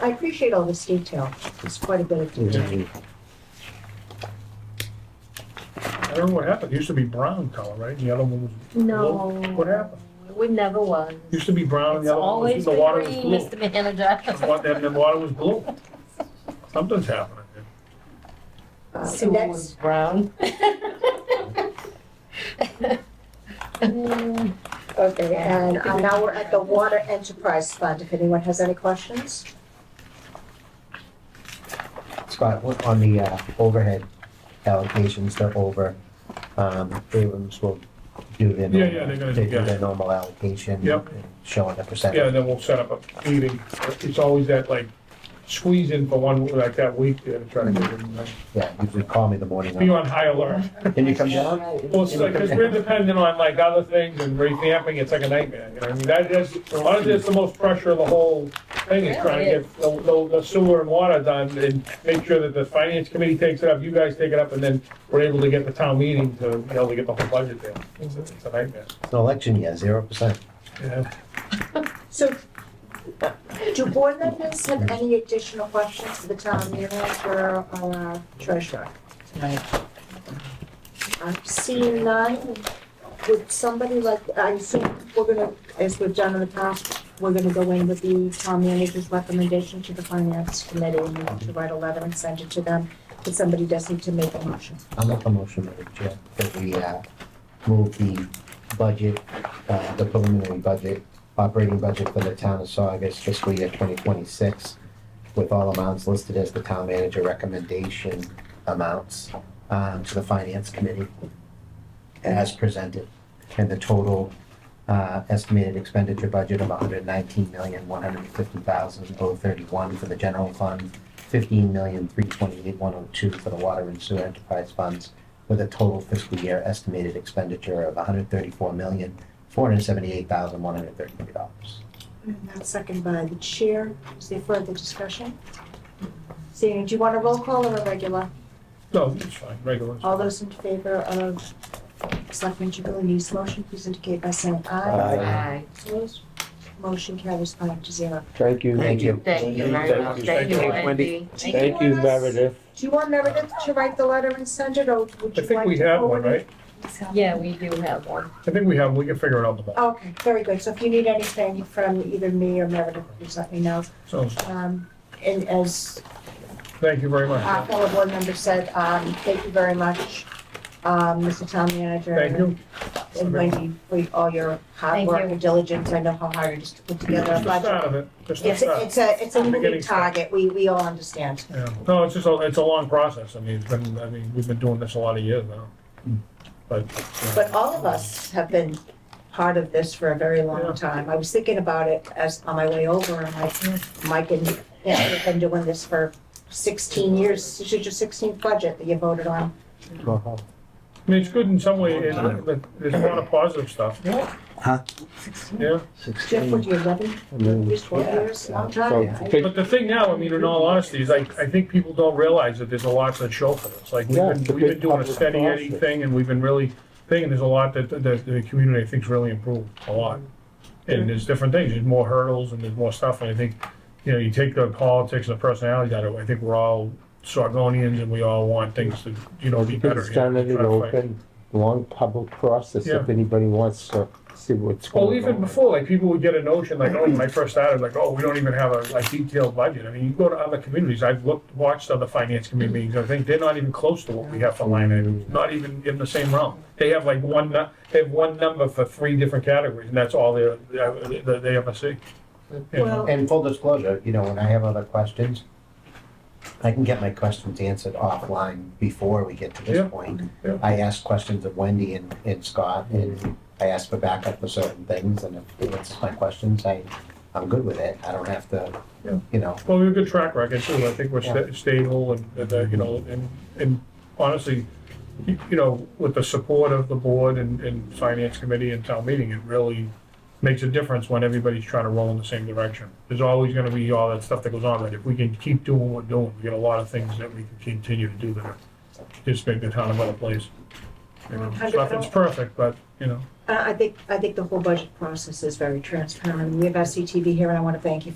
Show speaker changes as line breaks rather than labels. I appreciate all this detail. It's quite a bit of detail.
I don't know what happened. It used to be brown color, right? The other one was,
No.
What happened?
It never was.
used to be brown and
It's
the other one
always
was,
been
the water was
green,
blue.
Mr. Manager.
What, then the water was blue. Something's happening. here.
Uh,
Sewer
And
was
that's,
brown.
okay, and uh, now we're at the Water Enterprise Fund, if anyone has any questions?
Mm-hmm.
Scott, what- on the uh, overhead allocations, they're over. Um, Abrams will do their.
Yeah, yeah, they're gonna-
they do
yeah.
their normal allocation.
Yep.
and Showing the
Yeah,
percentage.
and then we'll set up a meeting. It's always that like squeeze in for one, like that week there to try to get it. in.
Yeah, usually call me in the morning.
Be
of.
on high alert.
Can you come down?
Well, it's like, cause we're dependent on like other things and revamping, it's like a nightmare, you know, I mean, that is, honestly, it's the most pressure of the whole thing, is trying to get the- the the sewer and water done, and make sure that the finance committee takes it up, you guys take it up, and then we're able to get the town meeting to, be able to get the whole budget there. It's a- it's a nightmare,
It's an election year, zero percent.
yeah.
So, do board members have any additional questions for the town manager or our treasurer? I've seen none. Would somebody like, I assume we're gonna, as we've done in the past, we're gonna go in with the town manager's recommendation to the finance committee and to write a letter and send it to them. But somebody does need to make a motion.
I'll make a motion, Madam Chair, that we uh, move the budget, uh, the preliminary budget, operating budget for the town of Saugus fiscal year 2026, with all amounts listed as the town manager recommendation amounts um, to the finance committee as presented. And the total uh, estimated expenditure budget of $119,150,031 for the general fund, fifteen million, three twenty-eight, one oh two for the water and sewer enterprise funds, with a total fiscal year estimated expenditure of hundred thirty-four million, four hundred seventy-eight thousand, one hundred thirty-three dollars.
And Mm-hmm. that's second by the chair. Is there further discussion? Seeing, do you want a roll call or a regular?
No, it's fine, regular.
All those in favor of Selectman Jubilee's motion, please indicate by saying aye.
Aye.
Opposed? Motion carries five to zero.
Thank you.
Thank you.
Thank you
Thank
very
you.
much.
Thank you,
Wendy.
Thank you, Meredith.
Do you want Meredith to write the letter and send it, or would
I
you
think
like
we
to
have one,
forward it?
right?
Yeah, we do have one.
I think we have, we can figure it out tomorrow,
Okay, very good. So if you need anything from either me or Meredith, please let me know.
so,
Um, and as
thank you
our
very much.
fellow board member said, um, thank you very much, um, Mr. Town Manager.
Thank you.
And Wendy, for all your hard
Thank
work
you.
and diligence. I know how hard it is to put together a
Just
budget.
out of it, just
It's,
out.
it's a, it's a moving
Beginning start.
target, we, we all understand.
Yeah, no, it's just, a it's a long process, I mean, it's been, I mean, we've been doing this a lot of years now. But,
But all of us have been part of this for a very long
Yeah.
time. I was thinking about it as, on my way over, and like, "Hmm, Mike and, yeah, we've been doing this for sixteen years. This is your sixteenth budget that you voted on.
I mean, it's good in some way, and but there's a lot of positive stuff, yeah.
Jeff, what, you eleven, years, twelve
Mm. Yeah.
years, long
So,
time?
pick-
But the thing now, I mean, in all honesty, is like, I think people don't realize that there's a lot to show for this, like, we've
Yeah, it's a
been, we've been
big
doing a
public
steady Eddie
process.
thing, and we've been really thinking there's a lot that, that the community thinks really improved, a lot. And there's different things, there's more hurdles and there's more stuff, and I think, you know, you take the politics and the personalities out of it, I think we're all Sargonians and we all want things to, you know, be better.
It's
you know,
done in an
try to fight.
open, long public process if
Yeah.
anybody wants to see what's going on.
Well, even before, like, people would get a notion, like, oh, when I first started, like, oh, we don't even have a, like, detailed budget. I mean, you go to other communities, I've looked, watched other finance committee meetings, I think they're not even close to what we have for line items, not even in the same realm. They have like one, nu- they have one number for three different categories, and that's all they're, they they ever see. You know?
Well-
And full disclosure, you know, when I have other questions, I can get my questions answered offline before we get to
Yeah.
this point.
Yeah.
I ask questions of Wendy and, and Scott, and I ask for backup for certain things, and if it answers my questions, I, I'm good with it. I don't have to,
Yeah.
you know,
Well, we have a good track record too. I think we're
Yeah.
sta- stable and, and, uh, you know, and, and honestly, you you know, with the support of the board and, and finance committee and town meeting, it really makes a difference when everybody's trying to roll in the same direction. There's always gonna be all that stuff that goes on, but if we can keep doing what we're doing, we get a lot of things that we can continue to do that are just make the town a better place. You know,
Hundred
nothing's perfect, but, you know.
Uh, I think, I think the whole budget process is very transparent. We have SCTV here, and I want to thank you